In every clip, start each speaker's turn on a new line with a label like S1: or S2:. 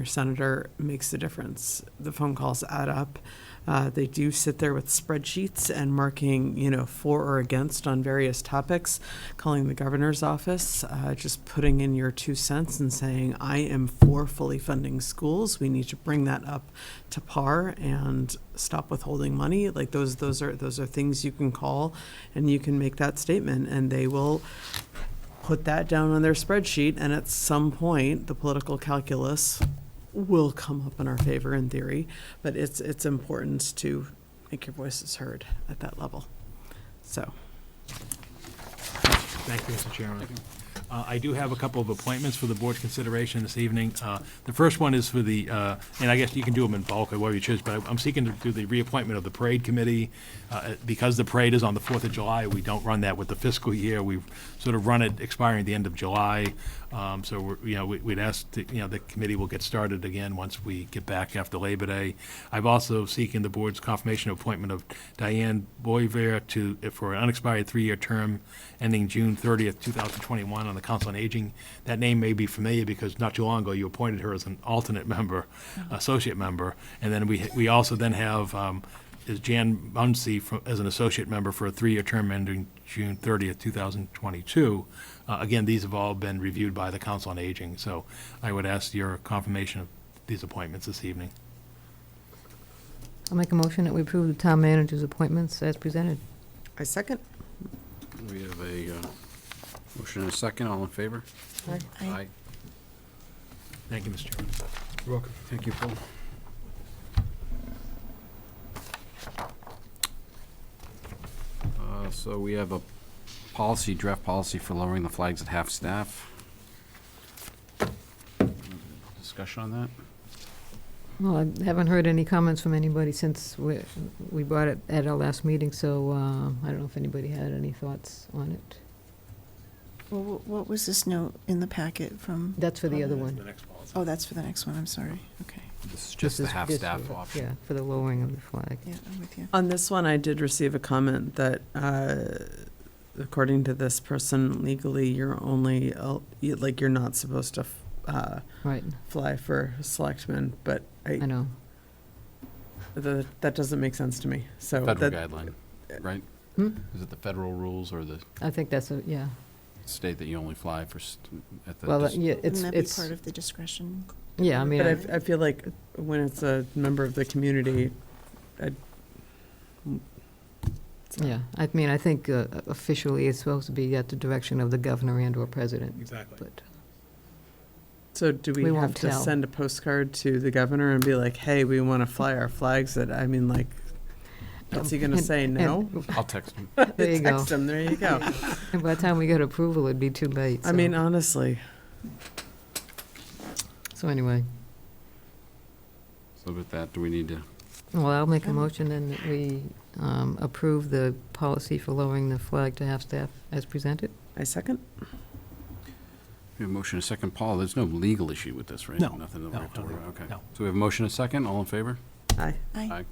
S1: Your senator makes the difference. The phone calls add up. Uh, They do sit there with spreadsheets and marking, you know, for or against on various topics, calling the governor's office, uh, just putting in your two cents and saying, I am for fully funding schools. We need to bring that up to par and stop withholding money. Like those, those are, those are things you can call and you can make that statement and they will put that down on their spreadsheet, and at some point, the political calculus will come up in our favor in theory, but it's, it's important to make your voices heard at that level. So,
S2: Thank you, Mr. Chairman. Uh, I do have a couple of appointments for the board's consideration this evening. Uh, The first one is for the, uh, and I guess you can do them in bulk or whatever you choose, but I'm seeking to do the reappointment of the parade committee. Uh, Because the parade is on the 4th of July, we don't run that with the fiscal year. We sort of run it expiring at the end of July. Um, So, we're- you know, we- we'd ask, that, you know, the committee will get started again once we get back after Labor Day. I've also seeking the board's confirmation of appointment of Diane Boyer to, for an unexpired three-year term ending June 30th, 2021 on the Council on Aging. That name may be familiar because not too long ago, you appointed her as an alternate member, associate member. And then we, we also then have um, is Jan Muncy fro- as an associate member for a three-year term ending June 30th, 2022. Uh, Again, these have all been reviewed by the Council on Aging, so I would ask your confirmation of these appointments this evening.
S3: I'll make a motion that we approve the town manager's appointments as presented.
S1: I second.
S4: We have a uh, motion and a second, all in favor? Aye.
S2: Thank you, Mr. Chairman.
S4: You're welcome. Thank you, Paul. Uh, So we have a policy, draft policy for lowering the flags at half-staff. Discussion on that?
S3: Well, I haven't heard any comments from anybody since we, we brought it at our last meeting, so, uh, I don't know if anybody had any thoughts on it.
S5: Well, wh- what was this note in the packet from?
S3: That's for the other one.
S5: Oh, that's for the next one, I'm sorry. Okay,
S4: This is
S3: This
S4: just the
S3: is just
S4: half-staff
S3: for-
S4: option.
S3: Yeah, for the lowering of the flag.
S5: yeah, I'm with you.
S1: On this one, I did receive a comment that, uh, according to this person, legally, you're only, el- you- like, you're not supposed to uh,
S3: Right,
S1: fly for selectmen, but
S3: I
S1: I,
S3: know.
S1: the- that doesn't make sense to me, so.
S4: Federal
S1: that-
S4: guideline, right?
S3: Hmm?
S4: Is it the federal rules or the
S3: I think that's a, yeah.
S4: state that you only fly for, st- at the?
S3: Well, uh,
S4: dis-
S3: yeah, it's,
S5: Wouldn't that be
S3: it's,
S5: part of the discretion?
S3: yeah, I mean,
S1: But I,
S3: I-
S1: f- I feel like when it's a member of the community, I.
S3: yeah, I mean, I think uh, officially it's supposed to be at the direction of the governor and/or president,
S2: Exactly.
S3: but,
S1: So do we
S3: We won't
S1: have to
S3: tell.
S1: send a postcard to the governor and be like, hey, we want to fly our flags that, I mean, like, what's he gonna
S3: And-
S1: say, no?
S4: I'll text them.
S3: there you go.
S1: Text him, there you go.
S3: And by the time we got approval, it'd be too late,
S1: I
S3: so-
S1: mean, uh, honestly,
S3: So anyway,
S4: So with that, do we need to
S3: well, I'll make a
S5: Um,
S3: motion then that we um, approve the policy for lowering the flag to half-staff as presented.
S1: I second.
S4: We have a motion and a second. Paul, there's no legal issue with this, right?
S2: No.
S4: Nothing that we
S2: No,
S4: have to worry
S2: nothing.
S4: about, okay.
S2: No.
S4: So we have a motion and a second, all in favor?
S1: Aye.
S4: Aye.
S5: Aye.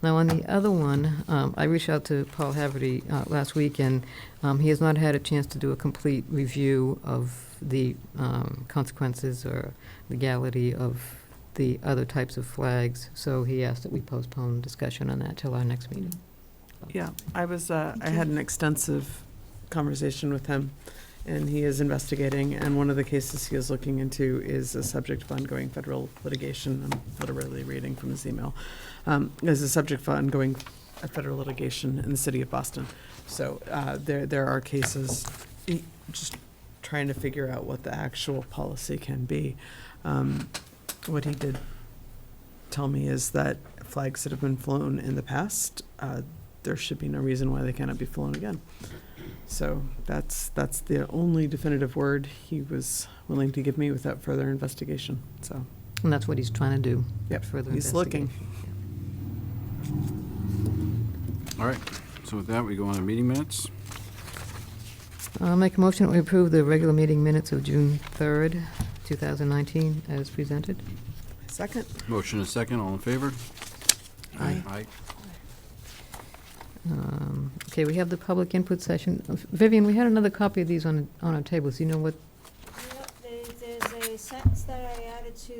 S3: Now, on the other one, um, I reached out to Paul Haverty uh, last week, and um, he has not had a chance to do a complete review of the um, consequences or legality of the other types of flags, so he asked that we postpone discussion on that till our next meeting.
S1: Yeah, I was, uh, I had an extensive conversation with him, and he is investigating, and one of the cases he is looking into is a subject of ongoing federal litigation. I'm literally reading from his email. Um, Is a subject of ongoing uh, federal litigation in the city of Boston. So uh, there, there are cases, he- just trying to figure out what the actual policy can be. Um, What he did tell me is that flags that have been flown in the past, uh, there should be no reason why they cannot be flown again. So that's, that's the only definitive word he was willing to give me without further investigation, so.
S3: And that's what he's trying to do.
S1: Yep,
S3: further
S1: he's looking.
S3: investigation.
S4: All right, so with that, we go on to meeting minutes.
S3: I'll make a motion that we approve the regular meeting minutes of June 3rd, 2019, as presented.
S1: Second?
S4: Motion and a second, all in favor?
S1: Aye.
S4: Aye.
S3: Um, Okay, we have the public input session. Vivian, we had another copy of these on, on our tables. Do you know what,
S6: Yep, there- There's a sentence that I added added to